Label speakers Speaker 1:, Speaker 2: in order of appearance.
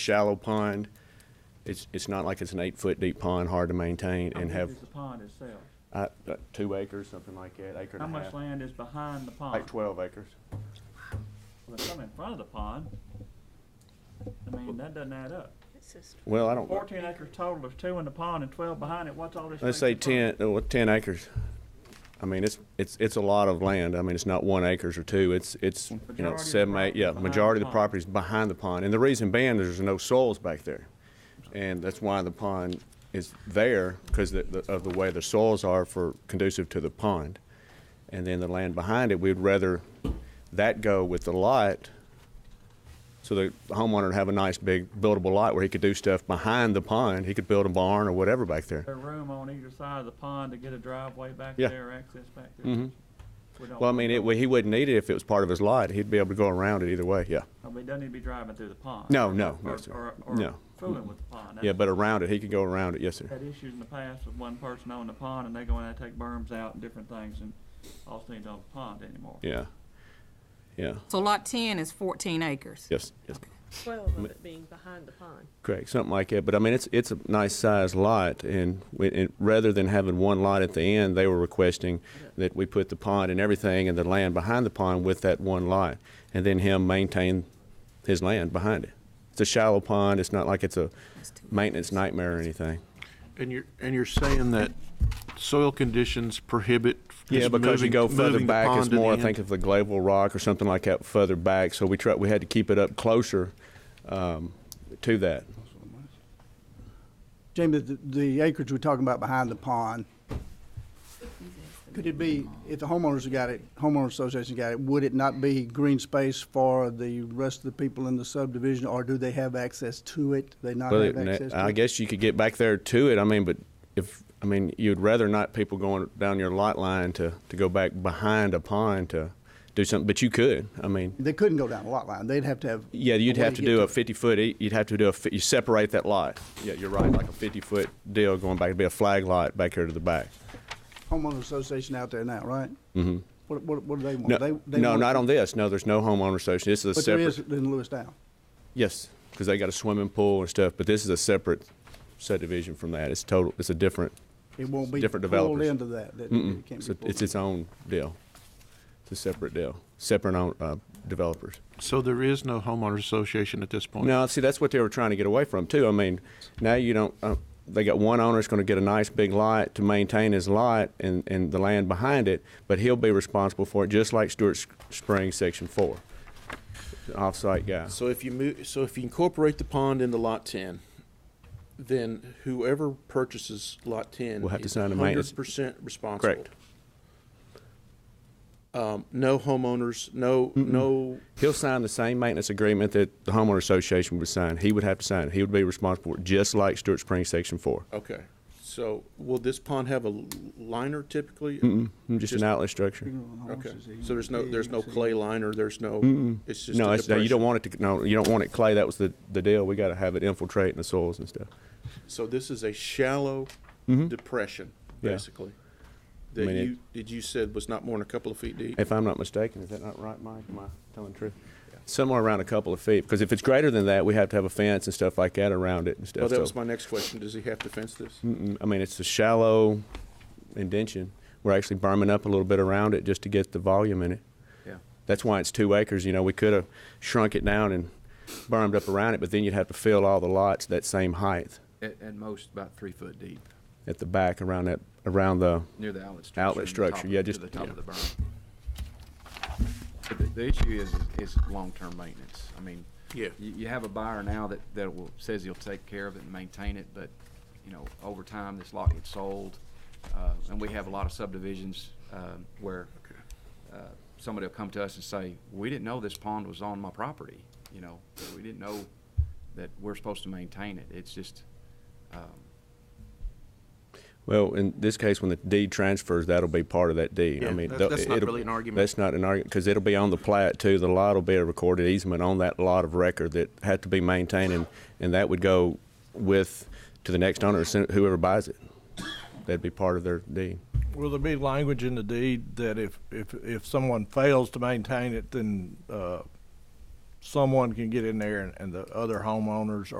Speaker 1: shallow pond. It's, it's not like it's an eight-foot deep pond, hard to maintain
Speaker 2: How
Speaker 1: and
Speaker 2: big
Speaker 1: have,
Speaker 2: is the pond itself?
Speaker 1: uh, uh, two acres, something like that, acre
Speaker 2: How
Speaker 1: and a
Speaker 2: much
Speaker 1: half.
Speaker 2: land is behind the pond?
Speaker 1: Like twelve acres.
Speaker 2: Well, there's some in front of the pond. I mean, that doesn't add up.
Speaker 1: Well, I don't,
Speaker 2: Fourteen acres total, there's two in the pond and twelve behind it, what's all this?
Speaker 1: let's
Speaker 2: space
Speaker 1: say
Speaker 2: in front?
Speaker 1: ten, uh, well, ten acres. I mean, it's, it's, it's a lot of land. I mean, it's not one acres or two. It's, it's, you
Speaker 2: Majority
Speaker 1: know,
Speaker 2: of the
Speaker 1: seven, eight,
Speaker 2: property
Speaker 1: yeah,
Speaker 2: behind the
Speaker 1: majority of the
Speaker 2: pond.
Speaker 1: property is behind the pond. And the reason being, there's no soils back there. And that's why the pond is there, because of the way the soils are for conducive to the pond. And then the land behind it, we'd rather that go with the lot, so the homeowner would have a nice big buildable lot where he could do stuff behind the pond. He could build a barn or whatever back there.
Speaker 2: There's room on either side of the pond to get a driveway back
Speaker 1: Yeah. Mm-hmm.
Speaker 2: there, access back there. We don't
Speaker 1: Well, I
Speaker 2: want
Speaker 1: mean,
Speaker 2: that.
Speaker 1: it, he wouldn't need it if it was part of his lot. He'd be able to go around it either way, yeah.
Speaker 2: Oh, But he doesn't need to be driving through the pond.
Speaker 1: No,
Speaker 2: or-
Speaker 1: no, no,
Speaker 2: or-
Speaker 1: sir.
Speaker 2: Or, or
Speaker 1: No.
Speaker 2: fooling with the pond.
Speaker 1: Yeah, but around it, he could go around it, yes, sir.
Speaker 2: Had issues in the past with one person owning the pond and they go in and take berms out and different things and all things on the pond anymore.
Speaker 1: Yeah. Yeah,
Speaker 3: So lot ten is fourteen acres.
Speaker 1: yes, yes.
Speaker 4: Twelve of it being behind the pond.
Speaker 1: Correct, something like that. But I mean, it's, it's a nice sized lot and, we- and rather than having one lot at the end, they were requesting that we put the pond and everything and the land behind the pond with that one lot. And then him maintain his land behind it. It's a shallow pond. It's not like it's a maintenance nightmare or anything.
Speaker 5: And you're, and you're saying that soil conditions prohibit.
Speaker 1: Yeah,
Speaker 5: just
Speaker 1: because you
Speaker 5: moving-
Speaker 1: go further
Speaker 5: moving the
Speaker 1: back, it's
Speaker 5: pond to the
Speaker 1: more, I
Speaker 5: end?
Speaker 1: think, of the glacial rock or something like that further back. So we try, we had to keep it up closer um, to that.
Speaker 6: Jamie, the- the acreage we're talking about behind the pond, could it be, if the homeowners got it, homeowner association got it, would it not be green space for the rest of the people in the subdivision, or do they have access to it? They not
Speaker 1: Well,
Speaker 6: have
Speaker 1: it-
Speaker 6: access to
Speaker 1: I
Speaker 6: it?
Speaker 1: guess you could get back there to it. I mean, but if, I mean, you'd rather not people going down your lot line to, to go back behind a pond to do something, but you could. I mean,
Speaker 6: They couldn't go down the lot line, they'd have to have.
Speaker 1: yeah, you'd
Speaker 6: a way
Speaker 1: have to
Speaker 6: get
Speaker 1: do a
Speaker 6: it.
Speaker 1: 50-foot, you'd have to do a, fi- you separate that lot. Yeah, you're right, like a 50-foot deal going back, it'd be a flag lot back here to the back.
Speaker 6: Homeowner association out there now, right? Mm-hmm. What, what, what do they want? They-
Speaker 1: No,
Speaker 6: they
Speaker 1: no,
Speaker 6: want-
Speaker 1: not on this. No, there's no homeowner association. This is a
Speaker 6: But there is
Speaker 1: separate.
Speaker 6: in Lewistown.
Speaker 1: Yes, because they got a swimming pool and stuff, but this is a separate subdivision from that. It's total, it's a different,
Speaker 6: It won't be
Speaker 1: Different
Speaker 6: pulled
Speaker 1: developers.
Speaker 6: into that, that
Speaker 1: mm-mm.
Speaker 6: it can't
Speaker 1: It's
Speaker 6: be
Speaker 1: a-
Speaker 6: pulled.
Speaker 1: It's its own deal. It's a separate deal, separate own, uh, developers.
Speaker 5: So there is no homeowners association at this point?
Speaker 1: Now, see, that's what they were trying to get away from too. I mean, now you don't, uh, they got one owner's gonna get a nice big lot to maintain his lot and, and the land behind it, but he'll be responsible for it, just like Stewart Springs Section Four. Off-site guy.
Speaker 5: So if you move, so if you incorporate the pond into lot ten, then whoever purchases lot ten.
Speaker 1: Will have to sign a maintenance-
Speaker 5: Hundred percent responsible.
Speaker 1: Correct.
Speaker 5: Um, no homeowners, no, no,
Speaker 1: He'll sign the same maintenance agreement that the homeowner association would sign. He would have to sign it. He would be responsible for it, just like Stewart Springs Section Four.
Speaker 5: okay. So will this pond have a l- liner typically?
Speaker 1: Mm, Just an outlet structure.
Speaker 5: Okay, so there's no, there's no clay liner, there's no, it's just a
Speaker 1: No, it's, no, you
Speaker 5: depression.
Speaker 1: don't want it to, no, you don't want it clay. That was the, the deal. We gotta have it infiltrating the soils and stuff.
Speaker 5: So this is a shallow depression,
Speaker 1: Mm-hmm. Yeah.
Speaker 5: basically.
Speaker 1: I
Speaker 5: That
Speaker 1: mean, it-
Speaker 5: you, did you said was not more than a couple of feet deep?
Speaker 1: If I'm not mistaken, is that not right, Mike? Am I telling the truth? Somewhere around a couple of feet, because if it's greater than that, we have to have a fence and stuff like that around it and stuff.
Speaker 5: Well, that
Speaker 1: So,
Speaker 5: was my next question. Does he have to fence this?
Speaker 1: mm, I mean, it's a shallow indention. We're actually berming up a little bit around it just to get the volume in it.
Speaker 5: Yeah.
Speaker 1: That's why it's two acres. You know, we could have shrunk it down and bermed up around it, but then you'd have to fill all the lots that same height
Speaker 7: At, at most about three foot deep,
Speaker 1: at the back around that, around the,
Speaker 7: near the outlet structure.
Speaker 1: Outlet
Speaker 7: and the top
Speaker 1: structure,
Speaker 7: of-
Speaker 1: yeah,
Speaker 7: to
Speaker 1: just-
Speaker 7: the top
Speaker 1: yeah.
Speaker 7: of the berm. But The, the issue is, is long-term maintenance. I mean,
Speaker 5: Yeah.
Speaker 7: you, you have a buyer now that, that will, says he'll take care of it and maintain it, but, you know, over time, this lot gets sold. Uh, and we have a lot of subdivisions, um, where, uh, somebody will come to us and say, we didn't know this pond was on my property, you know? We didn't know that we're supposed to maintain it. It's just, um,
Speaker 1: well, in this case, when the deed transfers, that'll be part of that deed. I
Speaker 5: Yeah,
Speaker 1: mean,
Speaker 5: that-
Speaker 1: tho-
Speaker 5: that's not
Speaker 1: it'll-
Speaker 5: really an argument.
Speaker 1: That's not an argument, because it'll be on the plat too. The lot will be a recorded easement on that lot of record that had to be maintained, and, and that would go with, to the next owner, whoever buys it. That'd be part of their deed.
Speaker 8: Will there be language in the deed that if, if, if someone fails to maintain it, then, uh, someone can get in there and, and the other homeowners